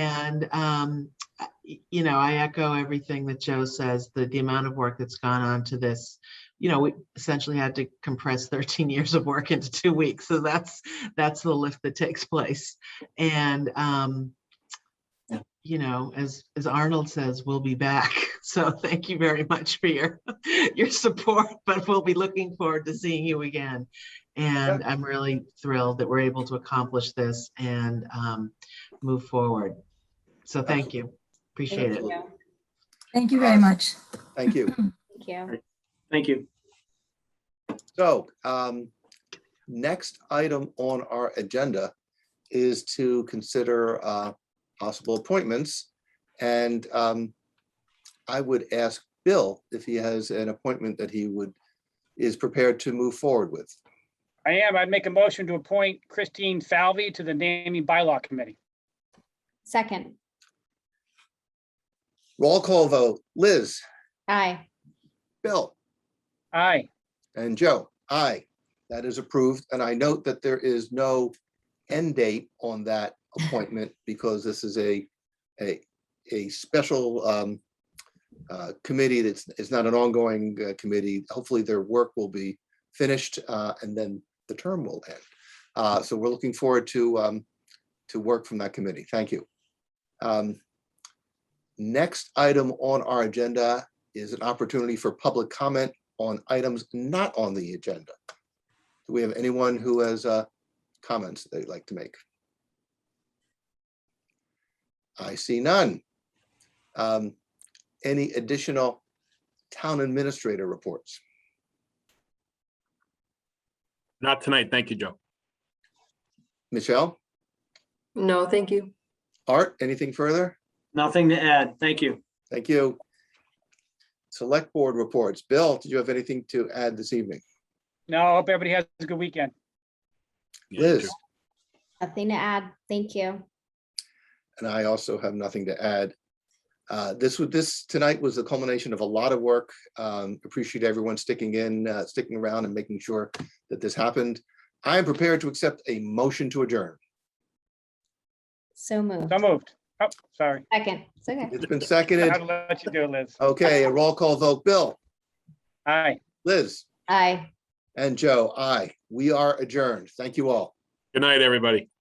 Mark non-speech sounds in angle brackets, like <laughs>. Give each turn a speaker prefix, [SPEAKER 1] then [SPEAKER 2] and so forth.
[SPEAKER 1] And, um, I- you know, I echo everything that Joe says, the, the amount of work that's gone on to this. You know, we essentially had to compress thirteen <laughs> years of work into two weeks, so that's, that's the lift that takes place. And, um, you know, as, as Arnold says, we'll be back. <laughs> So thank you very much for your, <laughs> your support, but we'll be looking forward to seeing you again. And I'm really thrilled that we're able to accomplish this and, um, move forward. So thank you. Appreciate
[SPEAKER 2] Thank
[SPEAKER 1] it.
[SPEAKER 2] you.
[SPEAKER 3] Thank you very much.
[SPEAKER 4] Thank you.
[SPEAKER 2] Thank you.
[SPEAKER 5] Thank you.
[SPEAKER 4] So um, next item on our agenda is to consider uh, possible appointments. And um, I would ask Bill if he has an appointment that he would, is prepared to move forward with.
[SPEAKER 6] I am. I'd make a motion to appoint Christine Falvey to the naming bylaw committee.
[SPEAKER 2] Second,
[SPEAKER 4] Roll call vote, Liz,
[SPEAKER 2] aye.
[SPEAKER 4] Bill,
[SPEAKER 6] Aye.
[SPEAKER 4] and Joe. Aye, that is approved. And I note that there is no end date on that appointment because this is a, a, a special um, uh, committee that's, it's not an ongoing uh, committee. Hopefully their work will be finished uh, and then the term will end. Uh, So we're looking forward to, um, to work from that committee. Thank you. Um, Next item on our agenda is an opportunity for public comment on items not on the agenda. Do we have anyone who has uh, comments they'd like to make? I see none. Um, Any additional town administrator reports?
[SPEAKER 7] Not tonight. Thank you, Joe.
[SPEAKER 4] Michelle,
[SPEAKER 8] No, thank you.
[SPEAKER 4] Art, anything further?
[SPEAKER 5] Nothing to add. Thank you.
[SPEAKER 4] Thank you. Select board reports. Bill, did you have anything to add this evening?
[SPEAKER 6] No, I hope everybody has a good weekend.
[SPEAKER 7] Yeah, you
[SPEAKER 4] Liz?
[SPEAKER 7] too.
[SPEAKER 2] Nothing to add. Thank you.
[SPEAKER 4] and I also have nothing to add. Uh, This was, this tonight was the culmination of a lot of work. Um, Appreciate everyone sticking in, uh, sticking around and making sure that this happened. I am prepared to accept a motion to adjourn.
[SPEAKER 2] So moved.
[SPEAKER 6] So moved. Oh, sorry.
[SPEAKER 2] Second, it's okay.
[SPEAKER 4] It's been
[SPEAKER 6] I
[SPEAKER 4] seconded.
[SPEAKER 6] had to let you do it, Liz.
[SPEAKER 4] Okay, a roll call vote. Bill,
[SPEAKER 6] Aye.
[SPEAKER 4] Liz,
[SPEAKER 2] Aye.
[SPEAKER 4] and Joe, aye. We are adjourned. Thank you all.
[SPEAKER 7] Good night, everybody.